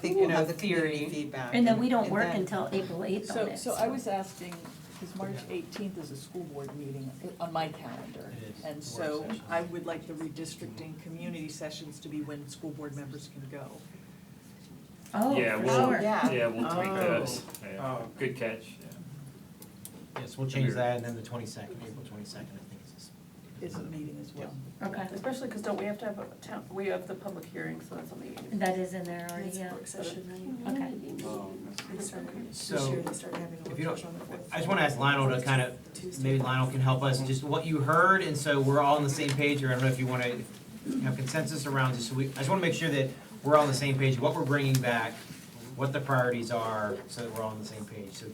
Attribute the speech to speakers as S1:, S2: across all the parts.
S1: think
S2: We'll
S1: you know,
S2: have the
S1: theory.
S2: community feedback.
S3: And then we don't work
S2: then-
S3: until April eighth on
S4: So,
S3: it.
S4: so I was asking, because March eighteenth is a school board meeting on my calendar.
S5: It is,
S4: And
S5: the
S4: so
S5: work session.
S4: I would like the redistricting community sessions to be when school board members can go.
S3: Oh,
S6: Yeah,
S3: for
S6: we'll-
S3: sure.
S2: Yeah.
S6: Yeah, we'll tweak
S1: Oh.
S6: those. Yeah.
S5: Oh.
S6: Good catch. Yeah.
S5: Yes, we'll change that, and then the twenty-second, April twenty-second, I think is this.
S4: Is a meeting as well.
S3: Okay,
S7: Especially because don't we have to have a town, we have the public hearing, so that's on the eighth.
S3: that is in there already, yeah. Okay.
S2: uh, They started- This
S5: So,
S2: year they started having a
S5: if you
S2: workshop on the fourth.
S5: I just wanna ask Lionel to kind of,
S2: Tuesday.
S5: maybe Lionel can help us, just what you heard, and so we're all on the same page, or I don't know if you wanna have consensus around this, so we, I just wanna make sure that we're all on the same page, what we're bringing back, what the priorities are, so that we're all on the same page, so.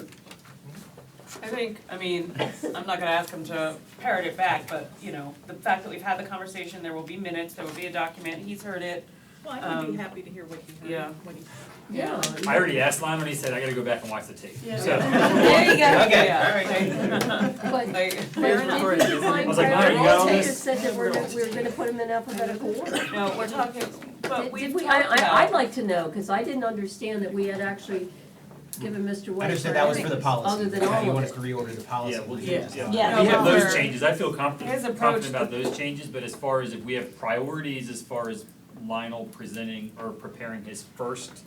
S7: I think, I mean, I'm not gonna ask him to parrot it back, but, you know, the fact that we've had the conversation, there will be minutes, there will be a document, he's heard it.
S4: Well,
S7: I would be Um,
S4: happy to hear what
S7: heard, yeah.
S3: Yeah.
S6: I already asked Lyman, and he said, I gotta go back and watch the tape.
S7: Yeah.
S6: So,
S3: There you go.
S5: Okay,
S7: Yeah.
S5: all right.
S8: But
S7: Like,
S8: but didn't you
S6: I
S8: find
S6: was like, Mom, you got all
S8: priorities? You
S6: this?
S8: just said that we're, gonna- we were gonna put them in alphabetical order.
S7: no, we're talking, but
S8: Did-
S7: we've
S8: did
S7: talked
S8: we-
S7: about.
S8: I, I, I'd like to know, because I didn't understand that we had actually given Mr.
S5: I
S8: White.
S5: understood that was for the
S8: priorities,
S5: policy,
S8: Other than
S5: Now you
S8: all
S5: want
S8: of
S5: us
S8: it.
S5: to reorder the policy.
S6: Yeah, we'll,
S5: do
S6: yeah.
S5: that.
S3: Yeah.
S6: We have those
S7: However,
S6: changes. I feel confident,
S7: his approach-
S6: confident about those changes, but as far as if we have priorities, as far as Lionel presenting or preparing his first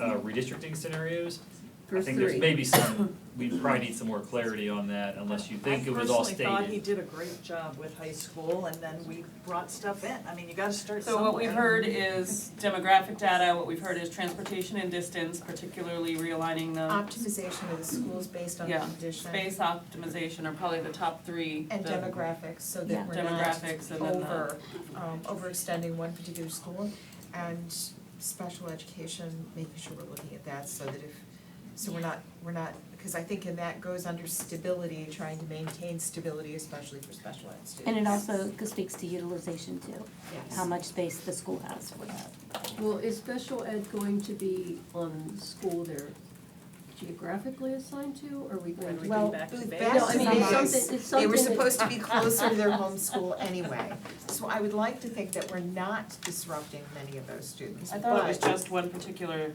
S6: uh, redistricting scenarios, I
S8: First
S6: think there's
S8: three.
S6: maybe some, we probably need some more clarity on that unless you think it was all stated.
S4: I personally thought he did a great job with high school, and then we brought stuff in. I mean, you gotta start
S7: So
S4: somewhere.
S7: what we've heard is demographic data, what we've heard is transportation and distance, particularly realigning the
S2: Optimization of the schools based on
S7: Yeah.
S2: condition
S7: space optimization are probably the top three.
S2: and
S7: the-
S2: demographics, so
S3: Yeah.
S2: that we're not
S7: Demographics and then the-
S2: over, um, overextending one particular school. And special education, making sure we're looking at that so that if, so we're not, we're not, because I think in that goes under stability, trying to maintain stability, especially for special ed students.
S3: And it also speaks to utilization too,
S2: Yes.
S3: how much space the school has for that.
S8: Well, is special ed going to be on the school they're geographically assigned to, or are we going to?
S2: Well,
S4: back to
S2: the
S4: base.
S8: No, I
S2: best
S8: mean,
S2: thing
S8: it's
S2: is-
S8: something, it's
S2: They
S8: something
S2: were
S8: that-
S2: supposed to be closer to their home school anyway. So I would like to think that we're not disrupting many of those students.
S7: I thought it was
S2: but-
S7: just one particular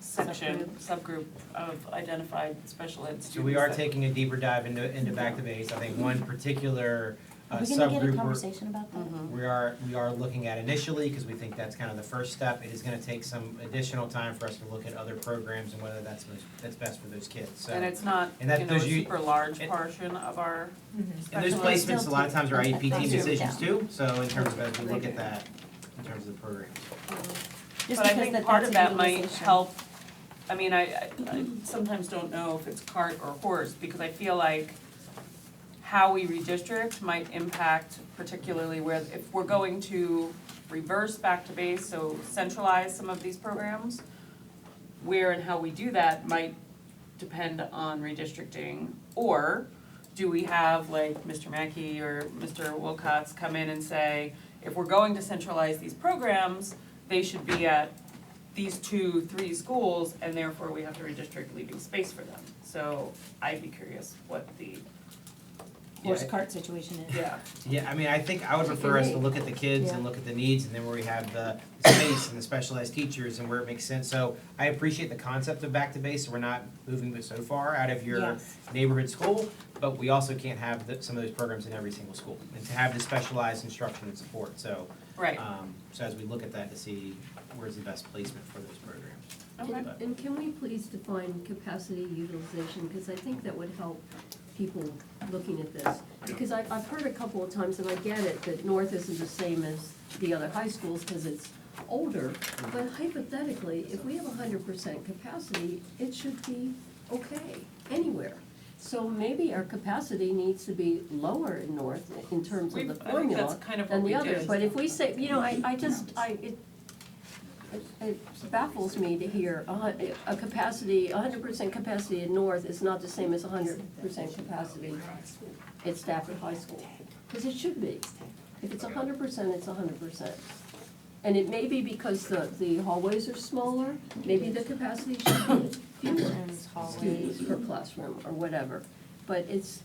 S7: section, subgroup of identified special ed students.
S5: So we are
S7: that-
S5: taking a deeper dive into, into back to base, I think one particular uh,
S3: Are we
S5: subgroup we're.
S3: gonna get a conversation about that?
S5: we are, we are looking at initially, because we think that's kind of the first step. It is gonna take some additional time for us to look at other programs and whether that's most, that's best for those kids, so.
S7: And it's not, you
S5: And that-
S7: know, a
S5: those you-
S7: super large
S5: and-
S7: portion of our
S5: And those
S7: special ed.
S5: placements, a lot of times are IEP
S3: Thank
S5: team
S3: you.
S5: decisions too, so in terms of, as we look at that, in terms of the programs.
S3: Just
S7: Mm-hmm. But I
S3: because
S7: think
S3: that
S7: part
S3: that's a
S7: of that might
S3: utilization.
S7: help, I mean, I, I, I sometimes don't know if it's cart or horse, because I feel like how we redistrict might impact particularly where, if we're going to reverse back to base, so centralize some of these programs, where and how we do that might depend on redistricting, or do we have like Mr. Mackey or Mr. Wilcox come in and say, if we're going to centralize these programs, they should be at these two, three schools, and therefore we have to redistrict leaving space for them. So I'd be curious what the,
S3: Horse
S5: Yeah.
S3: cart situation is.
S7: yeah,
S5: Yeah, I mean, I think I would prefer us to look at the kids and
S8: Yeah.
S5: look at the needs, and then where we have the space and the specialized teachers and where it makes sense. So I appreciate the concept of back to base, so we're not moving it so far out of your
S3: Yes.
S5: neighborhood school, but we also can't have the, some of those programs in every single school, and to have the specialized instruction and support, so.
S7: right,
S5: Um, so as we look at that to see where's the best placement for those programs.
S7: okay.
S8: And- And can we please define capacity utilization, because I think that would help people looking at this. Because I've, I've heard a couple of times, and I get it, that North isn't the same as the other high schools, because it's older. But hypothetically, if we have hundred percent capacity, it should be okay anywhere. So maybe our capacity needs to be lower in North in terms of
S7: We-
S8: the
S7: I think
S8: formula
S7: that's kind of what
S8: than
S7: we
S8: the
S7: did.
S8: others, but if we say, you know, I, I just, I, it, it- it baffles me to hear a hun- a capacity, hundred percent capacity in North is not the same as hundred percent capacity at Stafford High School. Because it should be. If it's hundred percent, it's hundred percent. And it may be because the, the hallways are smaller, maybe the capacity should be fewer
S3: Rooms, hallways.
S8: students per classroom or whatever. But it's,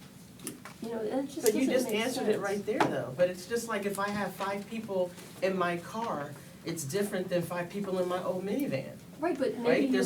S8: you know, it just
S7: But
S8: doesn't
S7: you
S8: make
S7: just
S8: sense.
S7: answered it
S2: right there though, but it's just like if I have five people in my car, it's different than five people in my old minivan.
S9: Right, but maybe
S8: Right? There's